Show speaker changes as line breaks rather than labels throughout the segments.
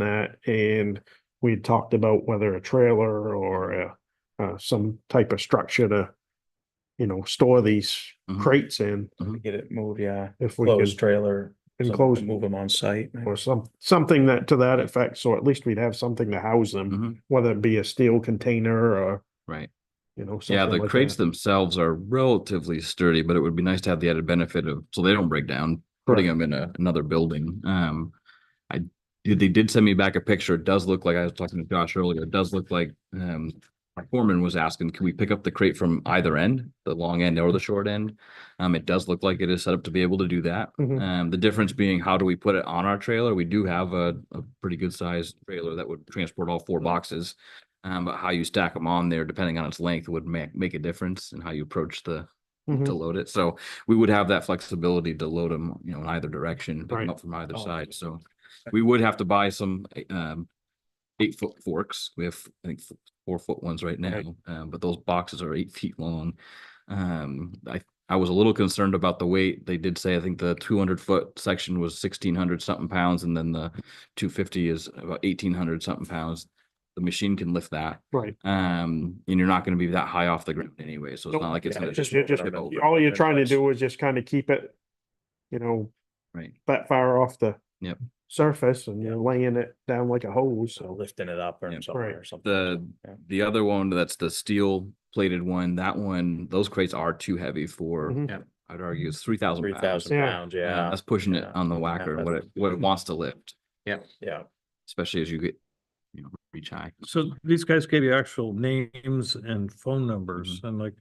that, and we had talked about whether a trailer or a, uh, some type of structure to, you know, store these
Mhm.
crates in,
Get it moved, yeah.
if we
Closed
could
trailer. something to
enclose,
Move them on site. maybe.
or some, something that, to that effect, so at least we'd have something to house them,
Mhm.
whether it be a steel container or,
Right.
you know.
Yeah,
something
the
like
crates
that.
themselves are relatively sturdy, but it would be nice to have the added benefit of, so they don't break down, putting them in a, another building. Um, I, did- they did send me back a picture. It does look like, I was talking to Josh earlier, it does look like, um, our foreman was asking, can we pick up the crate from either end, the long end or the short end? Um, it does look like it is set up to be able to do that.
Mhm.
Um, the difference being how do we put it on our trailer? We do have a, a pretty good sized trailer that would transport all four boxes. Um, but how you stack them on there, depending on its length, would make, make a difference in how you approach the, to
Mhm.
load it. So we would have that flexibility to load them, you know, in either direction, pick 'em
Right.
up from either
Oh.
side. So we would have to buy some, eh, um, eight foot forks. We have, I think, four foot ones right
Right.
now, um, but those boxes are eight feet long. Um, I, I was a little concerned about the weight. They did say, I think the two hundred foot section was sixteen hundred something pounds and then the two fifty is about eighteen hundred something pounds. The machine can lift that.
Right,
Um, and you're not gonna be that high off the ground anyway, so it's
Nope.
not like it's
Yeah,
gonna
just-
just.
You're just-
tip over.
all you're trying to
Nice.
do is just kind of keep it, you know,
Right.
that far off the
Yep.
surface, and you're laying it down like a hose,
So
so.
Lifting it up or
Yeah.
something
Right.
or something.
The,
Yeah.
the other one, that's the steel plated one, that one, those crates are too heavy for,
Mhm.
Yeah.
I'd argue it's three thousand.
Mm-hmm. Three thousand
Yeah.
pounds, yeah,
That's pushing it
yeah,
on the
yeah,
whacker,
that-
what it, what it wants to lift,
yeah.
especially as you get, you know, reach high.
So these guys gave you actual names and phone numbers and like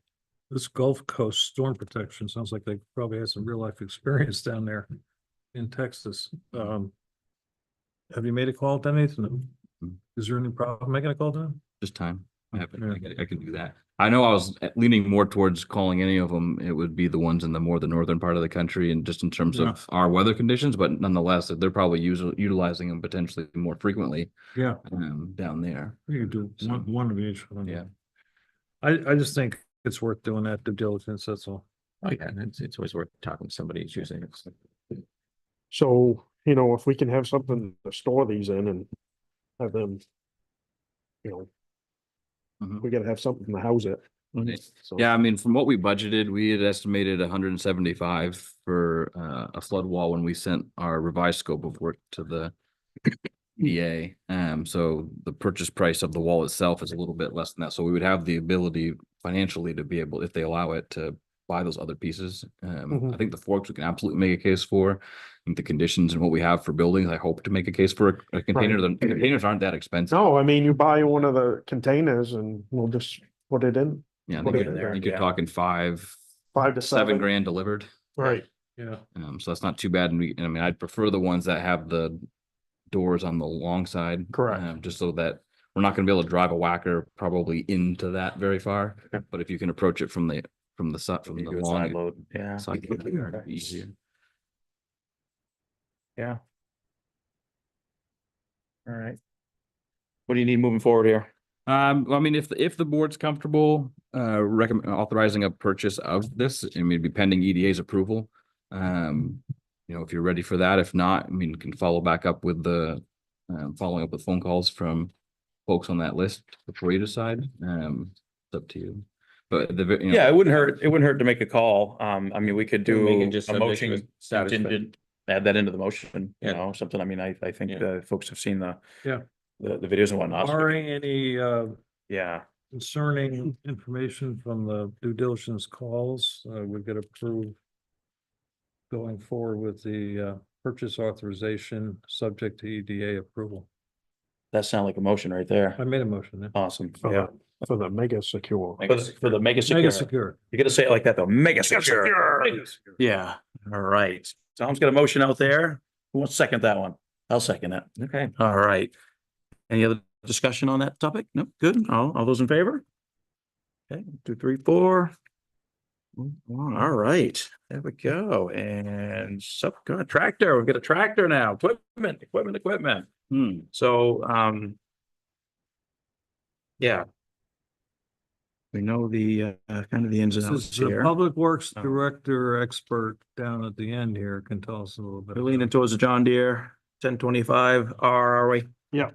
this Gulf Coast Storm Protection sounds like they probably had some real life experience down there in Texas. Um, have you made a call to any of them?
Mm.
Is there any problem making a call to them?
Just time. I have-
Yeah.
I can- I can do that. I know I was leaning more towards calling any of them. It would be the ones in the more the northern part of the country and just in terms
Yeah.
of our weather conditions, but nonetheless, they're probably using, utilizing them potentially more frequently
Yeah.
um, down there.
You could do
So-
one, one of each. one.
Yeah.
I, I just think it's worth doing that due diligence, that's all.
Oh, yeah, and it's, it's always worth talking to somebody who's using it. so.
So, you know, if we can have something to store these in and have them, you know,
Mhm.
we gotta have something to house it.
Mhm.
So-
Yeah, I mean, from what we budgeted, we had estimated hundred and seventy-five for uh, a flood wall when we sent our revised scope of work to the EA. Um, so the purchase price of the wall itself is a little bit less than that. So we would have the ability financially to be able, if they allow it, to buy those other pieces. Um,
Mhm.
I think the forks we can absolutely make a case for. I think the conditions and what we have for buildings, I hope to make a case for a- a container. The containers aren't that expensive.
No, I mean, you buy one of the containers and we'll just put it in,
Yeah, I
Put
think
it in
you're-
there,
I think you're
yeah.
talking five,
five to seven.
seven grand delivered.
Right,
Yeah.
Um, so that's not too bad. And we, and I mean, I'd prefer the ones that have the doors on the long side.
Correct.
um, Just so that we're not gonna be able to drive a whacker probably into that very far.
Yeah.
But if you can approach it from the, from the side, from
You
the
do a side
long.
load, Yeah,
side, it'd be easier.
yeah. All right. What do you need moving forward here?
Um, well, I mean, if, if the board's comfortable, uh, recommend authorizing a purchase of this, I mean, it'd be pending EDA's approval. Um, you know, if you're ready for that, if not, I mean, can follow back up with the, um, following up with phone calls from folks on that list before you decide, um, it's up to you. But the, ve- you know.
Yeah, it wouldn't hurt, it wouldn't hurt to make a call. Um, I mean, we could
And we
do
can just
a
subject to
motion
satisfa-
contingent, add that into the motion, you
Yeah.
know, something. I mean, I, I think
Yeah.
the folks have seen the
Yeah.
the, the videos and whatnot. so-
Barring any, uh,
Yeah,
concerning information from the due diligence calls, uh, would get approved going forward with the, uh, purchase authorization, subject to EDA approval.
that sound like a motion right
I
there.
made a motion. yeah.
Awesome,
for
yeah.
the, for the mega secure.
For the- For the mega secure,
Mega secure.
you gotta say it like that though, mega secure. Yeah, all right. Tom's got a motion out there. Who wants to second that one? I'll second it.
Okay,
All right. Any other discussion on that topic? No, good. All, all those in favor? Okay, one, two, three, four. All right, there we go. And subcontractor, we've got a tractor now, equipment, equipment, equipment.
Hmm.
So, um. Yeah. We know the, uh, kind of the ins and
This
outs
is the
here.
Public Works
Um,
Director expert down at the end here can tell us a little bit.
We're
about
leaning
it.
towards the John Deere ten twenty-five R, are we?
Yep.